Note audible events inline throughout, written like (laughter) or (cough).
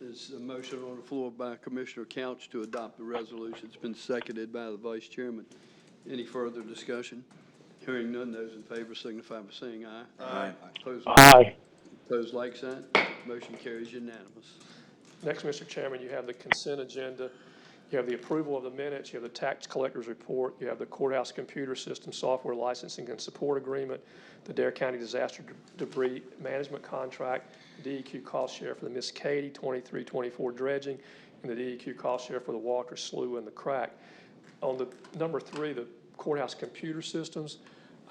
There's a motion on the floor by Commissioner Couch to adopt the resolution. It's been seconded by the Vice Chairman. Any further discussion? Hearing none, those in favor signify by saying aye. Aye. Opposed, Aye. opposed, like sign. Motion carries unanimous. Next, Mr. Chairman, you have the consent agenda. You have the approval of the minutes, you have the tax collector's report, you have the courthouse computer system software licensing and support agreement, the Dare County Disaster Debris Management Contract, DEQ cost share for the Miss Katie twenty-three, twenty-four dredging, and the DEQ cost share for the Walker Slough and the crack. On the number three, the courthouse computer systems,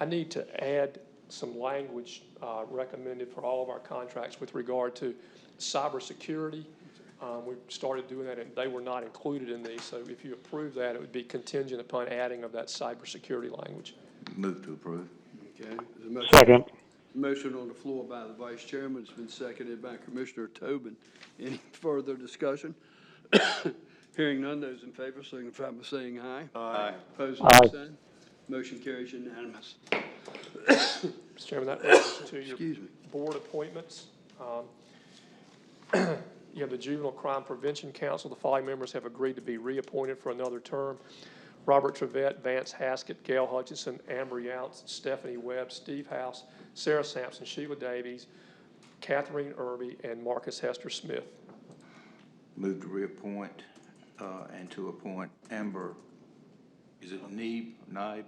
I need to add some language uh, recommended for all of our contracts with regard to cybersecurity. Um, We started doing that, and they were not included in these, so if you approve that, it would be contingent upon adding of that cybersecurity language. Move to approve. Okay? There's a motion- Second. Motion on the floor by the Vice Chairman. It's been seconded by Commissioner Tobin. Any further discussion? (coughs) Hearing none, those in favor signify by saying aye. Aye. Opposed, Aye. like sign. Motion carries unanimous. Mr. Chairman, that brings us to your Excuse me. board appointments. Um, (clears throat) You have the Juvenile Crime Prevention Council. The following members have agreed to be reappointed for another term. Robert Trevette, Vance Haskett, Gail Hutchinson, Amber Younts, Stephanie Webb, Steve House, Sarah Sampson, Sheila Davies, Catherine Irby, and Marcus Hester Smith. Move to reappoint, uh, and to appoint Amber, is it Neeb, Nib,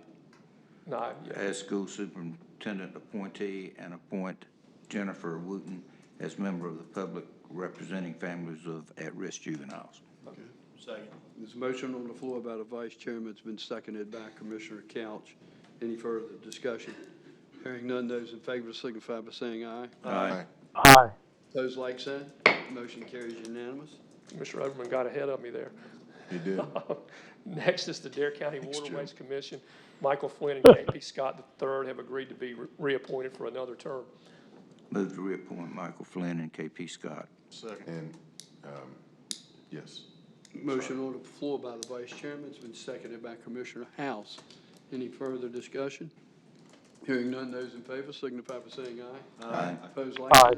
Now, yeah, as school superintendent appointee, and appoint Jennifer Wooten as member of the public representing families of at-risk juveniles. There's a motion on the floor by the Vice Chairman. It's been seconded by Commissioner Couch. Any further discussion? Hearing none, those in favor signify by saying aye. Aye. Aye. Those like sign. Motion carries unanimous. Commissioner Overman got ahead of me there. (laughs) He did. Next is the Dare County Jim. Waterways Commission. Michael Flynn and KP Scott III have agreed to be re- reappointed for another term. Move to reappoint Michael Flynn and KP Scott. And, um, yes. Motion on the floor by the Vice Chairman. It's been seconded by Commissioner House. Any further discussion? Hearing none, those in favor signify by saying aye. Aye. Opposed, like Aye.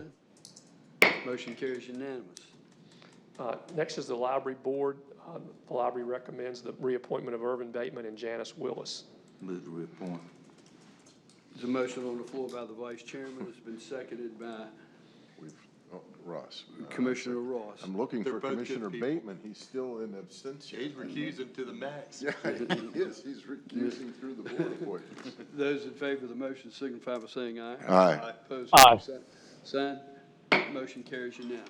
sign. Motion carries unanimous. Uh, Next is the Library Board. Uh, The library recommends the reappointment of Irvin Bateman and Janice Willis. Move to reappoint. There's a motion on the floor by the Vice Chairman. It's been seconded by We've, oh, Ross. uh, Commissioner Ross. I'm looking They're for both good Commissioner people. Bateman. He's still in absentia. (laughs) He's recusing to the max. Yeah, he is. He's recusing through the board appointments. Those in favor of the motion signify by saying aye. Aye. Opposed, Aye. sign. Motion carries unanimous.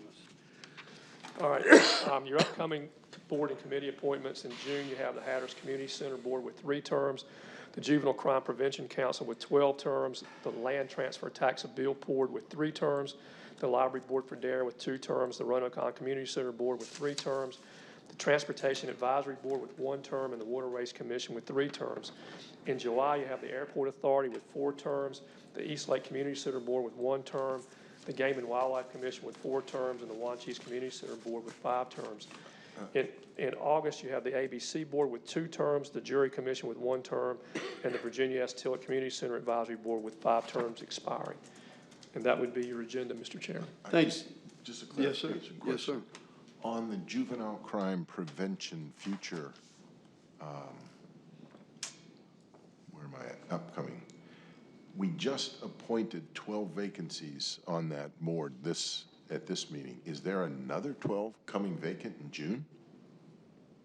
All right, (coughs) um, your upcoming board and committee appointments, in June, you have the Hatters Community Center Board with three terms, the Juvenile Crime Prevention Council with twelve terms, the Land Transfer Tax Appeal Board with three terms, the Library Board for Dare with two terms, the Roanoke Community Center Board with three terms, the Transportation Advisory Board with one term, and the Waterways Commission with three terms. In July, you have the Airport Authority with four terms, the East Lake Community Center Board with one term, the Game and Wildlife Commission with four terms, and the Wanchese Community Center Board with five terms. In, in August, you have the ABC Board with two terms, the Jury Commission with one term, and the Virginia S. Tillett Community Center Advisory Board with five terms expiring. And that would be your agenda, Mr. Chairman. Thanks. Just a Yes, sir. clarification question. Yes, sir. On the juvenile crime prevention future, um, where am I at? Upcoming. We just appointed 12 vacancies on that board this, at this meeting. Is there another 12 coming vacant in June?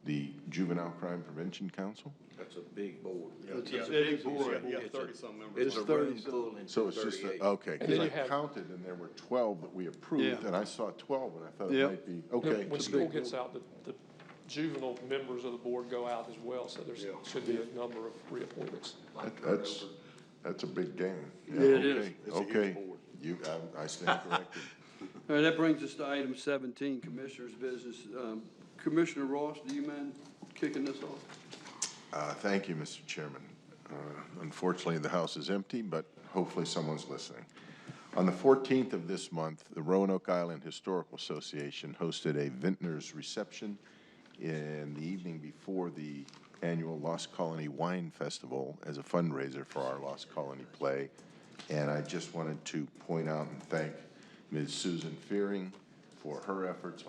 The Juvenile Crime Prevention Council? That's a big board. It's It's a it is big board. You got It's a- thirty-some members. It's a room 30. full into So it's just, a- 38. okay, And then because I you have- counted and there were 12 that we approved, Yeah. and I saw 12 and I thought Yep. it might be, okay. When school gets out, the, the juvenile members of the board go out as well, so there's, should be a number of reappointments. That- That's, that's a big game. Yeah, it is. okay, It's a huge Okay, board. you, I, I stand corrected. All right, that brings us to item seventeen, Commissioner's business. Um, Commissioner Ross, do you mind kicking this off? Uh, thank you, Mr. Chairman. Uh, Unfortunately, the house is empty, but hopefully someone's listening. On the fourteenth of this month, the Roanoke Island Historical Association hosted a vintner's reception in the evening before the annual Lost Colony Wine Festival as a fundraiser for our Lost Colony play. And I just wanted to point out and thank Ms. Susan Fearing for her efforts